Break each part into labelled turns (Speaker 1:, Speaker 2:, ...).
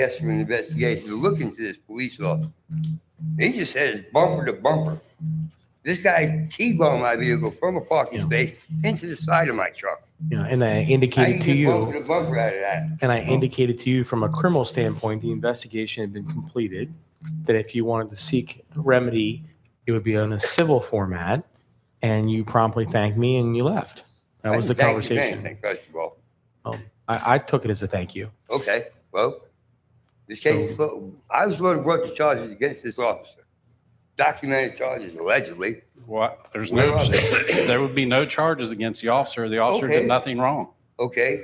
Speaker 1: asked for an investigation to look into this police officer. He just says bumper to bumper. This guy T-boned my vehicle from a parking
Speaker 2: Yeah.
Speaker 1: space into the side of my truck.
Speaker 2: You know, and I
Speaker 1: How
Speaker 2: indicated to
Speaker 1: get
Speaker 2: you,
Speaker 1: Bumper to bumper out of that.
Speaker 2: and I indicated to you from a criminal standpoint, the investigation had been completed. That if you wanted to seek remedy, it would be on a civil format. And you promptly thanked me and you left. That
Speaker 1: I
Speaker 2: was the
Speaker 1: didn't thank you for
Speaker 2: conversation.
Speaker 1: anything, First of all,
Speaker 2: Um, I, I took it as a thank you.
Speaker 1: okay, well, this case, is clo- I was going to work the charges against this officer. Documented charges allegedly.
Speaker 3: What, there's
Speaker 1: Where
Speaker 3: no,
Speaker 1: are
Speaker 3: there would be no charges against the officer. The officer
Speaker 1: Okay.
Speaker 3: did nothing wrong.
Speaker 1: Okay.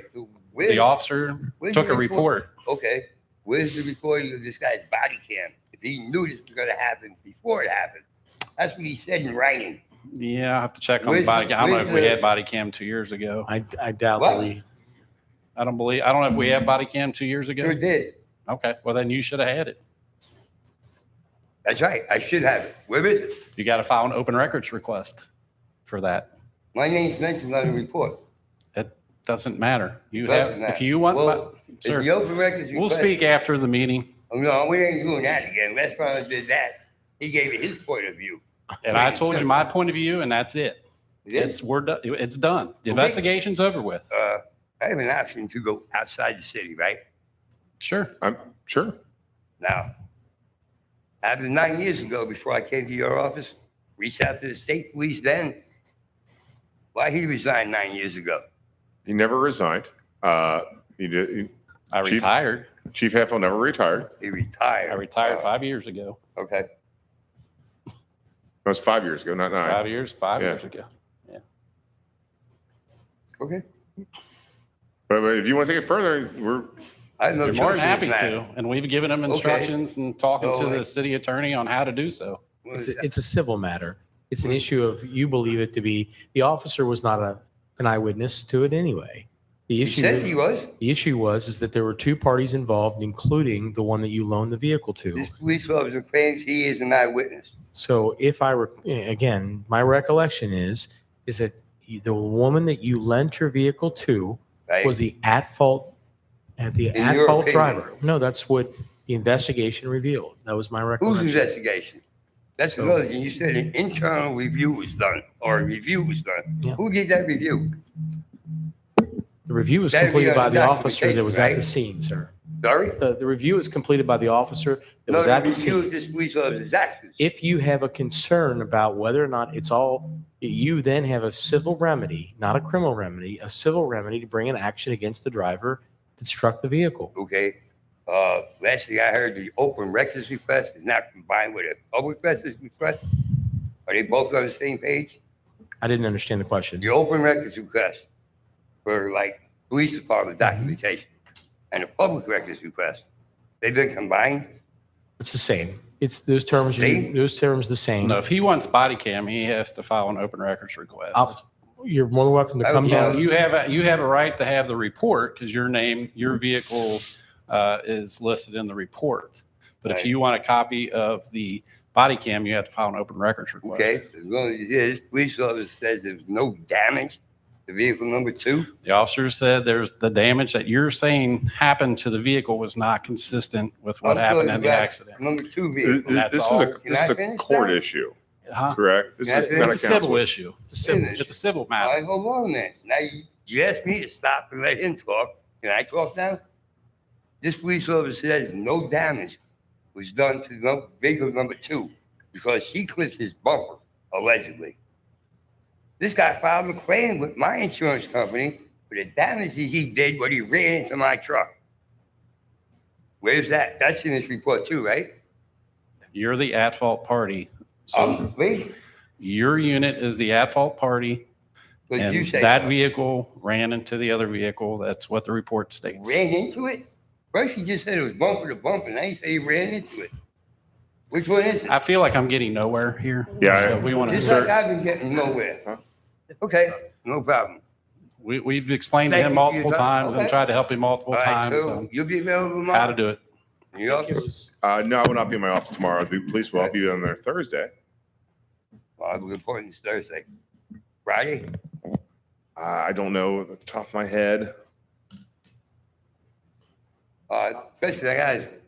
Speaker 1: where-
Speaker 3: The officer
Speaker 1: where's
Speaker 3: took
Speaker 1: the
Speaker 3: a report.
Speaker 1: okay, where's the recording of this guy's body cam? If he knew this was going to happen before it happened, that's what he said in writing.
Speaker 3: Yeah, I have to check on
Speaker 1: Where's-
Speaker 3: the body. I don't know
Speaker 1: where's
Speaker 3: if we
Speaker 1: the-
Speaker 3: had body cam two years ago.
Speaker 2: I, I doubt
Speaker 1: What?
Speaker 2: that we.
Speaker 3: I don't believe, I don't know if we had body cam two years
Speaker 1: Sure
Speaker 3: ago.
Speaker 1: did.
Speaker 3: Okay, well then you should have had it.
Speaker 1: That's right. I should have it. Where is it?
Speaker 3: You got to file an open records request for that.
Speaker 1: My name's mentioned on the report.
Speaker 3: Doesn't matter. You
Speaker 1: Doesn't
Speaker 3: have,
Speaker 1: matter.
Speaker 3: if you want,
Speaker 1: Well,
Speaker 3: my-
Speaker 1: Is the
Speaker 3: sir,
Speaker 1: open records
Speaker 3: we'll
Speaker 1: request-
Speaker 3: speak after the meeting
Speaker 1: Oh, no, we ain't doing that again. Last time I did that, he gave me his point of view.
Speaker 3: and I told you my point of view and that's it. It's, we're, do- it's done.
Speaker 1: Okay.
Speaker 3: The investigation's over with.
Speaker 1: Uh, I have an option to go outside the city, right?
Speaker 3: Sure.
Speaker 4: I'm sure.
Speaker 1: Now, after nine years ago, before I came to your office, reached out to the state police then. Why he resigned nine years ago?
Speaker 4: He never resigned. Uh, he did, he-
Speaker 3: I
Speaker 4: Chief-
Speaker 3: retired.
Speaker 4: Chief Heffel never retired.
Speaker 1: He retired.
Speaker 3: I retired
Speaker 1: Uh,
Speaker 3: five years ago.
Speaker 1: Okay,
Speaker 4: That was five years ago, not nine.
Speaker 3: Five years, five
Speaker 4: Yeah.
Speaker 3: years ago.
Speaker 1: okay.
Speaker 4: But, but if you want to take it further, we're
Speaker 1: I have no
Speaker 3: They're
Speaker 1: choice.
Speaker 3: more
Speaker 1: in
Speaker 3: than happy
Speaker 1: this
Speaker 3: to,
Speaker 1: matter.
Speaker 3: and we've given them instructions and talking
Speaker 1: So,
Speaker 3: to the
Speaker 1: like-
Speaker 3: city attorney on how to do so.
Speaker 2: It's, a- it's a civil matter. It's an issue of you believe it to be, the officer was not a, an eyewitness to it anyway. The
Speaker 1: He
Speaker 2: issue,
Speaker 1: said he was.
Speaker 2: the issue was, is that there were two parties involved, including the one that you loaned the vehicle to.
Speaker 1: This police officer claims he is an eyewitness.
Speaker 2: So if I, re- again, my recollection is, is that you- the woman that you lent your vehicle to
Speaker 1: Right?
Speaker 2: was the at-fault, at the
Speaker 1: In your
Speaker 2: at-fault
Speaker 1: opinion.
Speaker 2: driver. No, that's what the investigation revealed. That was my
Speaker 1: Whose
Speaker 2: recollection.
Speaker 1: investigation? That's
Speaker 2: So-
Speaker 1: another thing. You said an internal review was done, or a review was done.
Speaker 2: Yeah.
Speaker 1: Who did that review?
Speaker 2: The review was
Speaker 1: That'd be
Speaker 2: completed
Speaker 1: under
Speaker 2: by the officer that
Speaker 1: documentation,
Speaker 2: was at the
Speaker 1: right?
Speaker 2: scene, sir.
Speaker 1: Sorry?
Speaker 2: The, the review is completed by the officer that
Speaker 1: No,
Speaker 2: was
Speaker 1: the
Speaker 2: at the
Speaker 1: review
Speaker 2: scene.
Speaker 1: of this police officer's actions.
Speaker 2: If you have a concern about whether or not it's all, you then have a civil remedy, not a criminal remedy, a civil remedy to bring an action against the driver that struck the vehicle.
Speaker 1: okay? Uh, last thing I heard, the open records request is not combined with a public records request. Are they both on the same page?
Speaker 2: I didn't understand the question.
Speaker 1: The open records request for like police department
Speaker 3: Mm-hmm.
Speaker 1: documentation and the public records request, they've been combined?
Speaker 2: It's the same. It's those terms,
Speaker 1: Same?
Speaker 2: those terms the
Speaker 1: Mm-hmm.
Speaker 2: same.
Speaker 3: No, if he wants body cam, he has to file an open records request.
Speaker 2: I'll- Uh, You're more than welcome to
Speaker 1: I
Speaker 2: come
Speaker 1: would
Speaker 3: Now,
Speaker 1: love-
Speaker 2: down.
Speaker 3: you have, a you have a right to have the report because your name, your vehicle uh, is listed in the report. But if
Speaker 1: Right.
Speaker 3: you want a copy of the body cam, you have to file an open records request.
Speaker 1: Okay, as long as it is, police officer says there's no damage to vehicle number two.
Speaker 3: The officer said there's, the damage that you're saying happened to the vehicle was not consistent with what
Speaker 1: I'm
Speaker 3: happened
Speaker 1: talking
Speaker 3: at the
Speaker 1: about
Speaker 3: accident.
Speaker 1: Number two
Speaker 4: this,
Speaker 1: vehicle.
Speaker 3: That's
Speaker 4: this is
Speaker 3: all.
Speaker 4: a
Speaker 1: Can I
Speaker 4: this is a
Speaker 1: finish
Speaker 4: court
Speaker 1: that?
Speaker 4: issue,
Speaker 3: Huh?
Speaker 4: correct? This
Speaker 1: Can I
Speaker 4: is
Speaker 1: finish?
Speaker 4: not
Speaker 3: It's
Speaker 4: a
Speaker 3: a civil
Speaker 4: council.
Speaker 3: issue. It's a civil,
Speaker 1: Finish.
Speaker 3: it's a civil
Speaker 1: I
Speaker 3: matter.
Speaker 1: go on then. Now, you, you asked me to stop and let him talk. Can I talk now? This police officer says no damage was done to num- vehicle number two because she clipped his bumper, allegedly. This guy filed a claim with my insurance company for the damage that he did when he ran into my truck. Where's that? That's in this report too, right?
Speaker 3: You're the at-fault party. So
Speaker 1: Um, wait,
Speaker 3: your unit is the at-fault party.
Speaker 1: 'cause you
Speaker 3: And
Speaker 1: say
Speaker 3: that
Speaker 1: so.
Speaker 3: vehicle ran into the other vehicle. That's what the report states.
Speaker 1: ran into it? First you just said it was bumper to bumper, now you say you ran into it. Which one is it?
Speaker 3: I feel like I'm getting nowhere here.
Speaker 4: Yeah,
Speaker 3: So
Speaker 4: I-
Speaker 3: we want
Speaker 1: Just like
Speaker 3: to,
Speaker 1: I've been getting nowhere. Okay, no problem.
Speaker 3: we, we've explained to
Speaker 1: Thank
Speaker 3: him
Speaker 1: you for your
Speaker 3: multiple
Speaker 1: time.
Speaker 3: times and
Speaker 1: Okay.
Speaker 3: tried to help him
Speaker 1: All
Speaker 3: multiple
Speaker 1: right,
Speaker 3: times
Speaker 1: so
Speaker 3: on
Speaker 1: you'll be available
Speaker 3: how
Speaker 1: tomorrow?
Speaker 3: to do it.
Speaker 1: New York?
Speaker 4: Uh, no, I will not be in my office tomorrow. The police will I'll be on there Thursday.
Speaker 1: Well, I'm reporting this Thursday. Friday?
Speaker 4: Uh, I don't know at the top of my head.
Speaker 1: Uh, especially that guy,